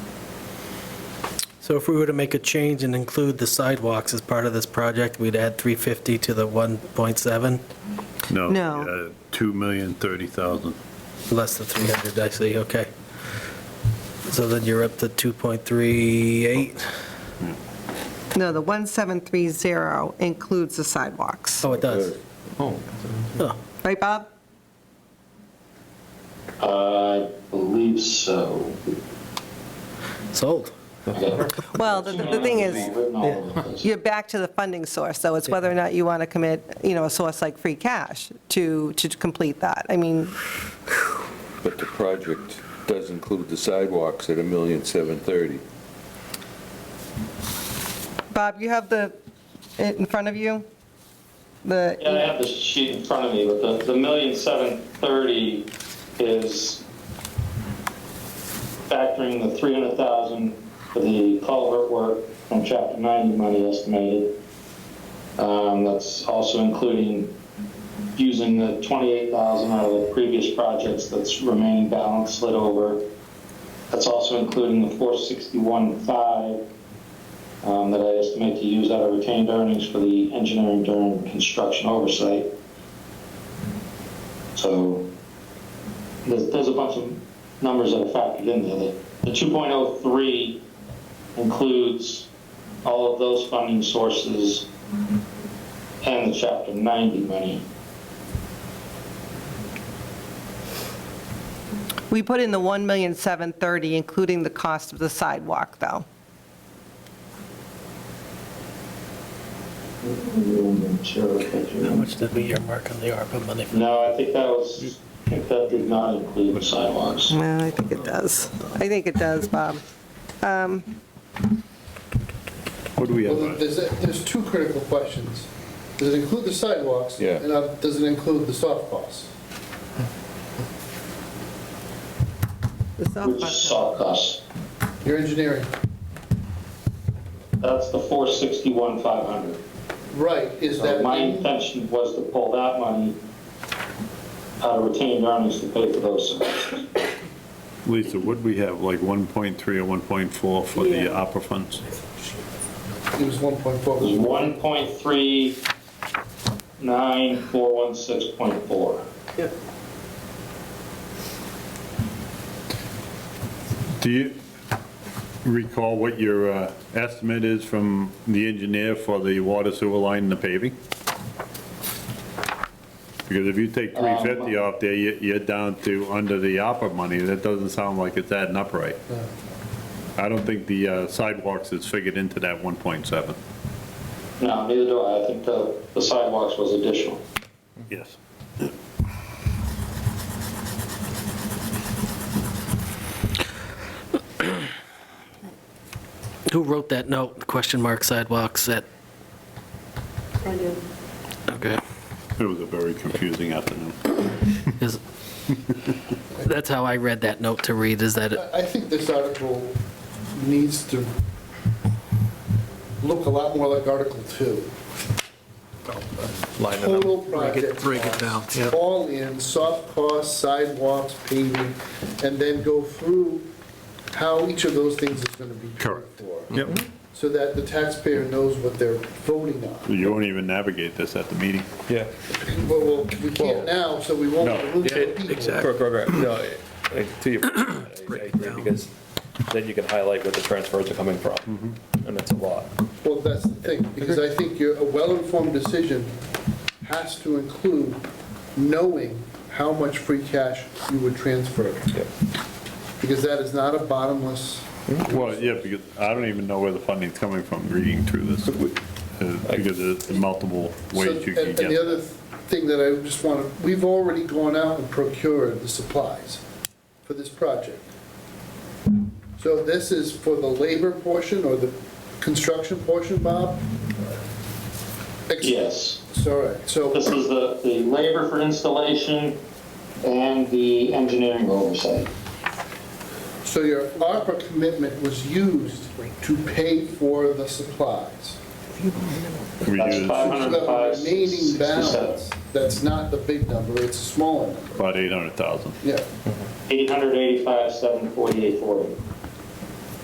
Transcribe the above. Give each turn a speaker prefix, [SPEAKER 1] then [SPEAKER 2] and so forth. [SPEAKER 1] So if we were to make a change and include the sidewalks as part of this project, we'd add 350 to the 1.7,
[SPEAKER 2] No.
[SPEAKER 3] No.
[SPEAKER 2] Two million thirty thousand.
[SPEAKER 1] less than 300, I see, okay. So then you're up to 2.38.
[SPEAKER 3] No, the 1730 includes the sidewalks.
[SPEAKER 1] Oh, it does. Oh.
[SPEAKER 3] Right, Bob?
[SPEAKER 4] I believe so.
[SPEAKER 1] Sold.
[SPEAKER 3] Well, the, the thing is,
[SPEAKER 4] is.
[SPEAKER 3] you're back to the funding source, though. It's whether or not you want to commit, you know, a source like free cash to, to complete that. I mean,
[SPEAKER 5] But the project does include the sidewalks at a million seven thirty.
[SPEAKER 3] Bob, you have the, it in front of you?
[SPEAKER 4] Yeah, I
[SPEAKER 3] The,
[SPEAKER 4] have the sheet in front of me, but the, the million seven thirty is factoring the three hundred thousand for the culvert work from chapter ninety money estimated. Um, that's also including using the twenty-eight thousand out of the previous projects that's remaining balance slid over. That's also including the four sixty-one five um, that I estimate to use out of retained earnings for the engineering during construction oversight. So there's, there's a bunch of numbers that are factored in there. The- The 2.03 includes all of those funding sources and the chapter 90 money.
[SPEAKER 3] we put in the 1,730, including the cost of the sidewalk, though.
[SPEAKER 1] How much did we earmark on the ARPA money?
[SPEAKER 4] No, I think that was, I think that did not include the sidewalks.
[SPEAKER 3] Well, I think it does. I think it does, Bob.
[SPEAKER 2] What do we
[SPEAKER 6] Well, there's, there's two critical questions. Does it include the sidewalks?
[SPEAKER 5] Yeah.
[SPEAKER 6] And uh, does it include the soft costs?
[SPEAKER 3] The
[SPEAKER 4] Which
[SPEAKER 3] softball-
[SPEAKER 4] soft costs.
[SPEAKER 6] Your engineering,
[SPEAKER 4] That's the 461, 500.
[SPEAKER 6] right, is
[SPEAKER 4] So
[SPEAKER 6] that,
[SPEAKER 4] my intention was to pull that money out of retained earnings to pay for those services.
[SPEAKER 2] Lisa, what do we have, like 1.3 or 1.4 for the
[SPEAKER 3] Yeah.
[SPEAKER 2] opera funds?
[SPEAKER 6] it was 1.4,
[SPEAKER 4] It was 1.39416.4.
[SPEAKER 2] Do you recall what your uh, estimate is from the engineer for the water sewer line and the paving? Because if you take
[SPEAKER 3] Um,
[SPEAKER 2] 350 off there, you- you're down to under the opera money, that doesn't sound like it's adding up right.
[SPEAKER 6] No.
[SPEAKER 2] I don't think the uh, sidewalks is figured into that 1.7.
[SPEAKER 4] No, neither do I. I think the the sidewalks was additional.
[SPEAKER 2] Yes.
[SPEAKER 1] Who wrote that note, question mark sidewalks at? I did. Okay.
[SPEAKER 2] It was a very confusing afternoon.
[SPEAKER 1] Is- That's how I read that note to read, is that, it-
[SPEAKER 6] I I think this article needs to look a lot more like Article 2.
[SPEAKER 7] Line it
[SPEAKER 6] Total
[SPEAKER 7] up. Break it-
[SPEAKER 6] project
[SPEAKER 7] Break it down,
[SPEAKER 6] costs,
[SPEAKER 7] yeah.
[SPEAKER 6] All in, soft costs, sidewalks, paving, and then go through how each of those things is going to be paid
[SPEAKER 2] Correct.
[SPEAKER 6] for.
[SPEAKER 2] Yep.
[SPEAKER 6] So that the taxpayer knows what they're voting on.
[SPEAKER 2] You won't even navigate this at the meeting.
[SPEAKER 7] Yeah.
[SPEAKER 6] Well, well, we can't now, so we won't
[SPEAKER 2] No.
[SPEAKER 6] lose the people.
[SPEAKER 7] Exactly. Correct, correct, no, I- I- to your, I I
[SPEAKER 1] Break it
[SPEAKER 7] agree,
[SPEAKER 1] down.
[SPEAKER 7] because then you can highlight where the transfers are coming from, and it's a lot.
[SPEAKER 6] Well, that's the thing, because I think your, a well-informed decision has to include knowing how much free cash you would transfer,
[SPEAKER 7] Yep.
[SPEAKER 6] because that is not a bottomless,
[SPEAKER 2] Well, yeah, because I don't even know where the funding's coming from reading through this, uh, because there's multiple
[SPEAKER 6] So,
[SPEAKER 2] ways you
[SPEAKER 6] And
[SPEAKER 2] can
[SPEAKER 6] and the
[SPEAKER 2] get.
[SPEAKER 6] other thing that I just want to, we've already gone out and procured the supplies for this project. So this is for the labor portion or the construction portion, Bob? Ex-
[SPEAKER 4] Yes.
[SPEAKER 6] It's all right, so.
[SPEAKER 4] This is the the labor for installation and the engineering oversight.
[SPEAKER 6] So your ARPA commitment was used to pay for the supplies.
[SPEAKER 2] We
[SPEAKER 4] That's
[SPEAKER 2] use
[SPEAKER 6] So
[SPEAKER 4] 500.
[SPEAKER 6] the remaining balance, that's not the big number, it's a smaller number,
[SPEAKER 2] about 800,000.
[SPEAKER 6] yeah.
[SPEAKER 4] 885, 748, 40.